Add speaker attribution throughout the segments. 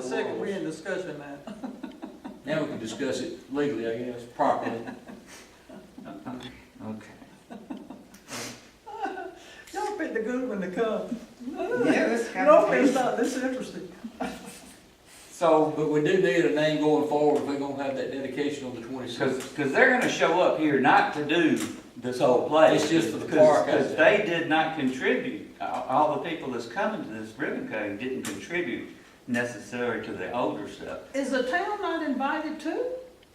Speaker 1: second, we
Speaker 2: rules.
Speaker 1: in discussion now.
Speaker 2: Now we can discuss it legally, I guess, properly. Okay.
Speaker 1: Y'all picked a good one to come.
Speaker 3: Yeah, that's kind
Speaker 1: No,
Speaker 3: of
Speaker 1: it's
Speaker 3: crazy.
Speaker 1: not, this is interesting.
Speaker 3: So,
Speaker 2: But we do need a name going forward if we're gonna have that dedication on the
Speaker 3: because,
Speaker 2: twenty-sixth.
Speaker 3: because they're gonna show up here not to do this whole place.
Speaker 2: It's just for the
Speaker 3: Because-
Speaker 2: park,
Speaker 3: Because
Speaker 2: isn't
Speaker 3: they did not contribute, all, all the people that's coming to this ribbon cutting didn't contribute necessarily to the older stuff.
Speaker 1: Is the town not invited too?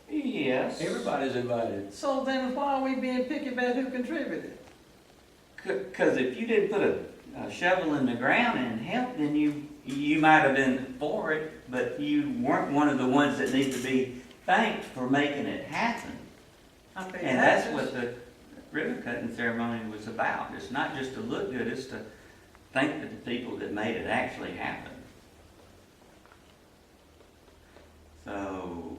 Speaker 3: Yes.
Speaker 2: Everybody's invited.
Speaker 1: So then why are we being picky about who contributed?
Speaker 3: Because if you didn't put a, a shovel in the ground and help, then you, you might have been for it, but you weren't one of the ones that need to be thanked for making it happen.
Speaker 1: I think
Speaker 3: And that's what the ribbon cutting ceremony was about. It's not just to look good, it's to thank the people that made it actually happen. So,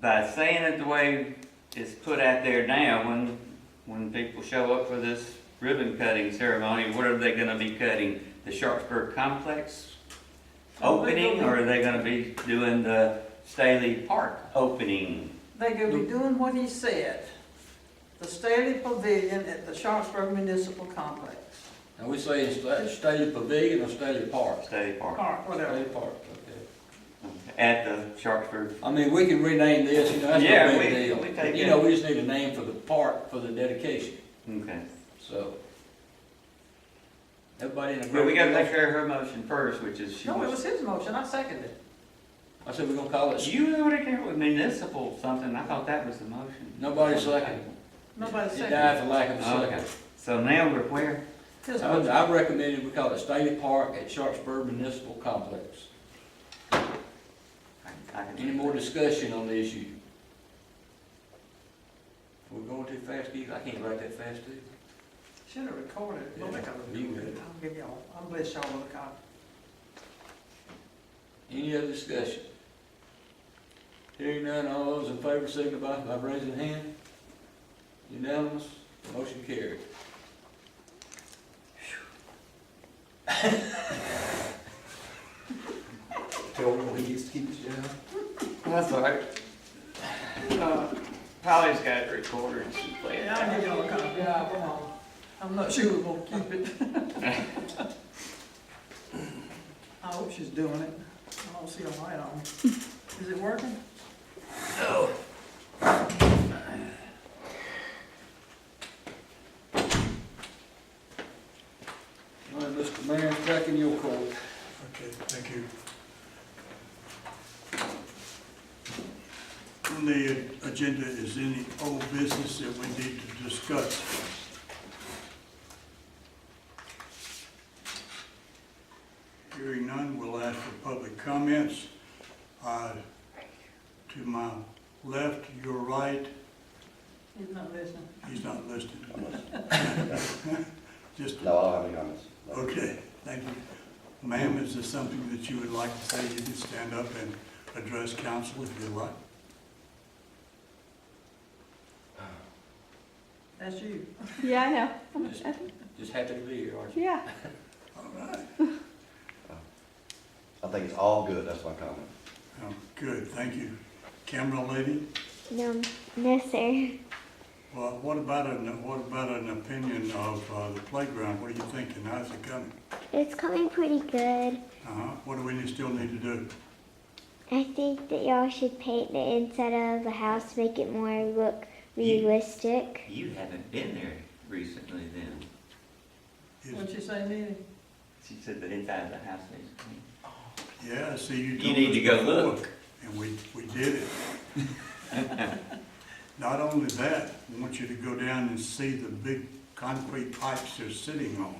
Speaker 3: by saying it the way it's put out there now, when, when people show up for this ribbon cutting ceremony, what are they gonna be cutting? The Sharpsburg Complex opening, or are they gonna be doing the Staley Park opening?
Speaker 1: They could be doing what he said. The Staley Pavilion at the Sharpsburg Municipal Complex,
Speaker 2: Now, we say it's sta- Staley Pavilion or Staley Park?
Speaker 3: Staley Park,
Speaker 1: park, whatever.
Speaker 2: Staley Park, okay.
Speaker 3: at the Sharpsburg.
Speaker 2: I mean, we can rename this, you know, that's
Speaker 3: Yeah,
Speaker 2: no
Speaker 3: we- we
Speaker 2: big deal.
Speaker 3: take
Speaker 2: You
Speaker 3: it.
Speaker 2: know, we just need a name for the park, for the dedication,
Speaker 3: Okay.
Speaker 2: so. Everybody in agreement?
Speaker 3: But we gotta take care of her motion first, which is she
Speaker 1: No, it
Speaker 3: was.
Speaker 1: was his motion, I seconded it.
Speaker 2: I said we're gonna call it,
Speaker 3: You already came up with municipal something, I thought that was the motion.
Speaker 2: Nobody seconded.
Speaker 1: Nobody
Speaker 2: it
Speaker 1: seconded
Speaker 2: died for lack of a
Speaker 3: Okay,
Speaker 2: second.
Speaker 3: so now we're where?
Speaker 1: his
Speaker 2: I would-
Speaker 1: motion.
Speaker 2: I recommended we call it Staley Park at Sharpsburg Municipal Complex.
Speaker 3: I can-
Speaker 2: Any more discussion on the issue? We're going too fast, Keith, I can't write that fast, do you?
Speaker 1: Should have recorded it. Don't
Speaker 2: Yeah,
Speaker 1: make a
Speaker 2: you
Speaker 1: record.
Speaker 2: would.
Speaker 1: I'll give y'all, I'll bless y'all with a copy.
Speaker 2: Any other discussion? Hearing none, all those in favor signify by raising hand. Unanimous, motion carried.
Speaker 4: Tell him when he gets to keep his job.
Speaker 3: That's all right. Uh, Polly's got it recorded, she played
Speaker 1: Yeah, I'll give y'all a copy, yeah, come on. I'm not sure we're gonna keep it. I hope she's doing it. I don't see a light on. Is it working?
Speaker 2: All right, Mr. Mayor, back in your court.
Speaker 4: Okay, thank you. On the agenda is any old business that we need to discuss. Hearing none, we'll ask for public comments. Uh, To my left, your right,
Speaker 1: He's not listening.
Speaker 4: he's not listed. Just
Speaker 5: No, I don't have any comments. No.
Speaker 4: Okay, thank you. Ma'am, is there something that you would like to say? You can stand up and address council if you like.
Speaker 1: That's you.
Speaker 6: Yeah, I know.
Speaker 2: Just- Just happy to be here, aren't you?
Speaker 6: Yeah.
Speaker 4: All right.
Speaker 5: I think it's all good, that's my comment.
Speaker 4: Oh, Good, thank you. Camera lady,
Speaker 7: No, no, sir.
Speaker 4: well, what about an, what about an opinion of uh, the playground? What are you thinking? How's it coming?
Speaker 7: It's coming pretty good.
Speaker 4: Uh-huh, what do we need- still need to do?
Speaker 7: I think that y'all should paint the inside of the house, make it more look
Speaker 3: Ye-
Speaker 7: realistic.
Speaker 3: You haven't been there recently then.
Speaker 1: What'd
Speaker 4: Is-
Speaker 1: you say, Neely?
Speaker 3: She said the inside of the house needs to be.
Speaker 4: Yeah, I see you
Speaker 3: You
Speaker 4: told
Speaker 3: need
Speaker 4: us
Speaker 3: to go
Speaker 4: before,
Speaker 3: look.
Speaker 4: And we, we did it. Not only that, I want you to go down and see the big concrete pipes they're sitting on.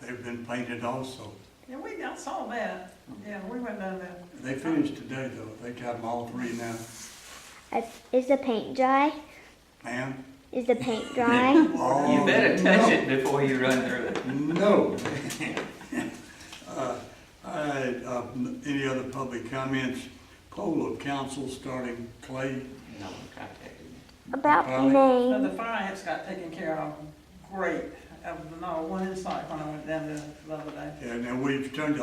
Speaker 4: They've been painted also.
Speaker 1: Yeah, we, I saw that. Yeah, we went down there.
Speaker 4: They finished today though, they got them all three now.
Speaker 7: Uh, Is the paint dry?
Speaker 4: Ma'am?
Speaker 7: Is the paint dry?
Speaker 4: Oh,
Speaker 3: You better touch
Speaker 4: no.
Speaker 3: it before you run through it.
Speaker 4: No. Uh, All right, uh, n- any other public comments? Poll of council starting Clay.
Speaker 3: No, I contacted you.
Speaker 7: About
Speaker 4: Well,
Speaker 7: the
Speaker 1: Now, the
Speaker 7: name.
Speaker 1: fire ants got taken care of great. I was not one in sight when I went down there the other day.
Speaker 4: And then we've turned